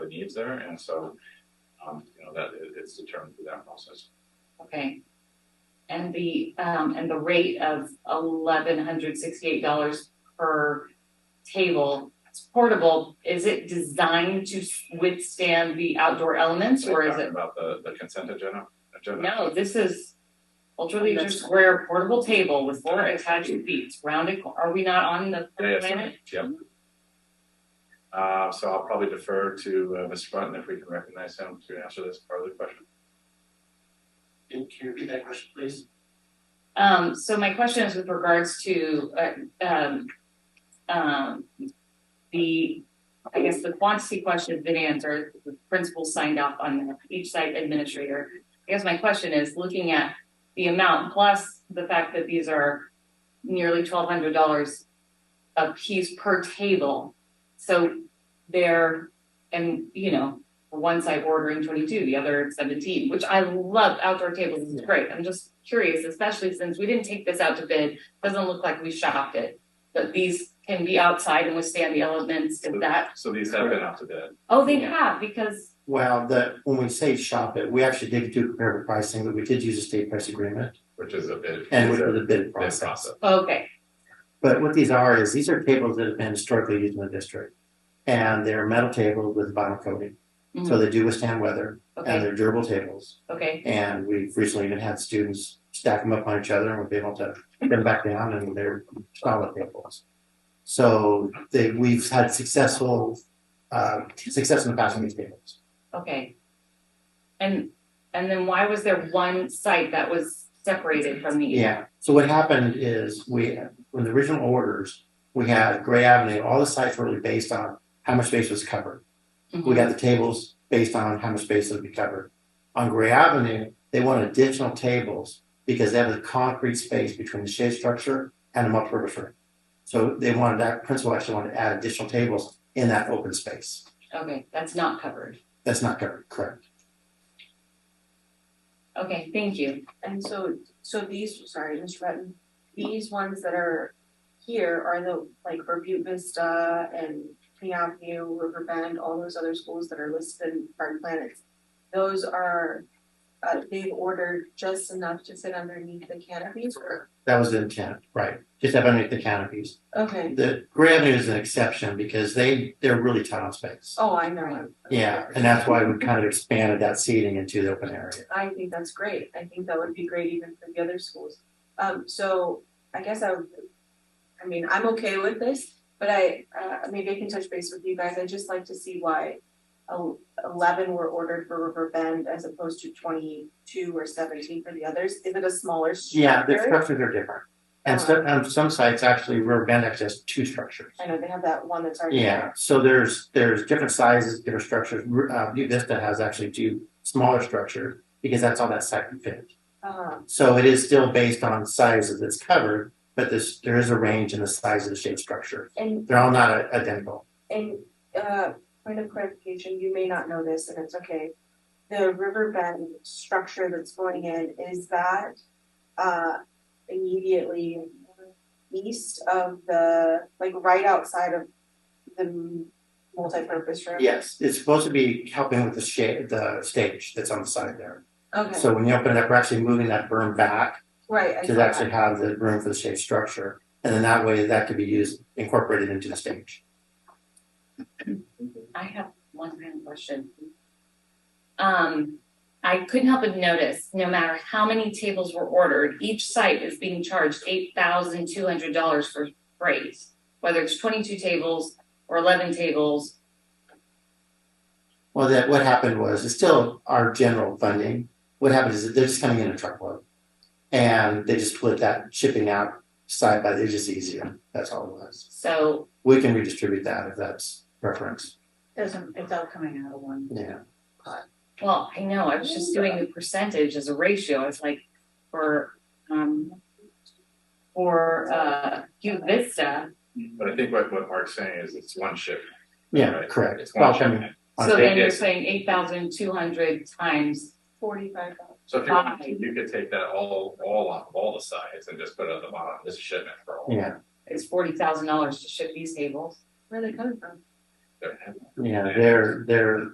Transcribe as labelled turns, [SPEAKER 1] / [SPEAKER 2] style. [SPEAKER 1] needs there, and so, um, you know, that, it- it's determined through that process.
[SPEAKER 2] Okay. And the, um, and the rate of eleven hundred sixty-eight dollars per table, it's portable, is it designed to withstand the outdoor elements or is
[SPEAKER 1] Talking
[SPEAKER 2] it?
[SPEAKER 1] About the, the consent agenda, agenda.
[SPEAKER 2] No, this is Ultra
[SPEAKER 3] Oh,
[SPEAKER 2] Leisure
[SPEAKER 3] that's-
[SPEAKER 2] Square portable table with four attached feet, rounded, cor- are we not on the
[SPEAKER 1] Yeah, yeah,
[SPEAKER 2] planet?
[SPEAKER 1] sorry. Yep. Uh, so I'll probably defer to, uh, Mr. Button if we can recognize him to answer this part of the question.
[SPEAKER 3] Can can you repeat that question, please?
[SPEAKER 2] Um, so my question is with regards to, uh, um, um, the, I guess the quantity question has been answered, the principal signed off on each site administrator. I guess my question is, looking at the amount plus the fact that these are nearly twelve hundred dollars a piece per table. So they're, and, you know, for one site ordering twenty-two, the other seventeen, which I love outdoor tables, it's great, I'm just curious, especially since we didn't take this out to bid, doesn't look like we shopped it. But these can be outside and withstand the elements, is that,
[SPEAKER 1] So these have been up to bid.
[SPEAKER 2] oh, they have, because,
[SPEAKER 4] Well, the, when we say shop it, we actually did do comparative pricing, but we did use a state price agreement
[SPEAKER 1] which is a bid.
[SPEAKER 4] and
[SPEAKER 1] is
[SPEAKER 4] with
[SPEAKER 1] a
[SPEAKER 4] the bid
[SPEAKER 1] Bid
[SPEAKER 4] process.
[SPEAKER 1] process.
[SPEAKER 2] okay,
[SPEAKER 4] But what these are is, these are tables that have been historically used in the district. And they're metal tables with vinyl coating,
[SPEAKER 3] Mm-hmm.
[SPEAKER 4] so they do withstand weather and
[SPEAKER 2] okay,
[SPEAKER 4] they're durable tables.
[SPEAKER 2] okay,
[SPEAKER 4] And we've recently even had students stack them up on each other and we've been able to put them back down and they're solid tables. So they, we've had successful, uh, success in passing these tables.
[SPEAKER 2] okay. And, and then why was there one site that was separated from the,
[SPEAKER 4] Yeah, so what happened is we, when the original orders, we had Gray Avenue, all the sites were really based on how much space was covered. We got the tables based on how much space would be covered. On Gray Avenue, they wanted additional tables because they have a concrete space between the shade structure and the multipurpose room. So they wanted that, principal actually wanted to add additional tables in that open space.
[SPEAKER 2] Mm-hmm. okay, that's not covered,
[SPEAKER 4] That's not covered, correct?
[SPEAKER 2] okay, thank you.
[SPEAKER 5] And so, so these, sorry, Mr. Button, these ones that are here are the, like, for Butte Vista and King Avenue, River Bend, all those other schools that are listed in Garden Planets. Those are, uh, they've ordered just enough to fit underneath the canopies or?
[SPEAKER 4] That was the intent, right? Just have underneath the canopies.
[SPEAKER 5] Okay,
[SPEAKER 4] The Gray Avenue is an exception because they, they're really tight on space.
[SPEAKER 5] oh, I know.
[SPEAKER 4] Yeah, and that's why we kind of expanded that seating into the open area.
[SPEAKER 5] I think that's great. I think that would be great even for the other schools. Um, so I guess I, would- I mean, I'm okay with this, but I, uh, maybe I can touch base with you guys. I'd just like to see why el- eleven were ordered for River Bend as opposed to twenty-two or seventeen for the others. Is it a smaller
[SPEAKER 4] Yeah, the
[SPEAKER 5] structure?
[SPEAKER 4] structures are different. And some, um, some sites actually, River Bend actually has two structures.
[SPEAKER 5] I know they have that one that's already.
[SPEAKER 4] Yeah, so there's, there's different sizes, different structures. Uh, View Vista has actually two smaller structures because that's all that site can fit.
[SPEAKER 5] Um,
[SPEAKER 4] So it is still based on sizes that's covered, but this, there is a range in the size of the shade structure.
[SPEAKER 5] and,
[SPEAKER 4] They're all not i- identical.
[SPEAKER 5] and, uh, point of clarification, you may not know this and it's okay. the river bend structure that's going in, is that uh immediately east of the, like right outside of the multipurpose room?
[SPEAKER 4] Yes, it's supposed to be helping with the shade, the stage that's on the side there.
[SPEAKER 5] Okay,
[SPEAKER 4] So when you open it up, we're actually moving that berm back
[SPEAKER 5] right, I saw
[SPEAKER 4] to
[SPEAKER 5] that.
[SPEAKER 4] actually have the room for the shade structure. And then that way that could be used, incorporated into the stage.
[SPEAKER 2] I have one random question. Um, I couldn't help but notice, no matter how many tables were ordered, each site is being charged eight thousand two hundred dollars for freight. Whether it's twenty-two tables or eleven tables,
[SPEAKER 4] Well, that, what happened was, it's still our general funding. What happened is that they're just coming in a truckload. And they just split that shipping out side by, it's just easier. That's all it was.
[SPEAKER 2] so,
[SPEAKER 4] We can redistribute that if that's preference.
[SPEAKER 6] Doesn't, it's all coming out of one.
[SPEAKER 4] Yeah.
[SPEAKER 2] well, I know, I was just doing the percentage as a ratio, it's like for, um, for, uh, View Vista,
[SPEAKER 1] But I think what, what Mark's saying is it's one ship.
[SPEAKER 4] Yeah,
[SPEAKER 1] Right.
[SPEAKER 4] correct.
[SPEAKER 1] It's
[SPEAKER 4] Well,
[SPEAKER 1] one
[SPEAKER 4] I mean,
[SPEAKER 1] ship.
[SPEAKER 4] on
[SPEAKER 2] so then
[SPEAKER 1] stage,
[SPEAKER 2] you're
[SPEAKER 1] yes.
[SPEAKER 2] saying eight thousand two hundred times,
[SPEAKER 5] Forty-five dollars.
[SPEAKER 1] So if you, want, you could take that all, all off of all the sides and just put it at the bottom, this is shipment for all.
[SPEAKER 4] Yeah,
[SPEAKER 2] it's forty thousand dollars to ship these tables.
[SPEAKER 5] Where are they coming from?
[SPEAKER 1] They're-
[SPEAKER 4] yeah, they're, they're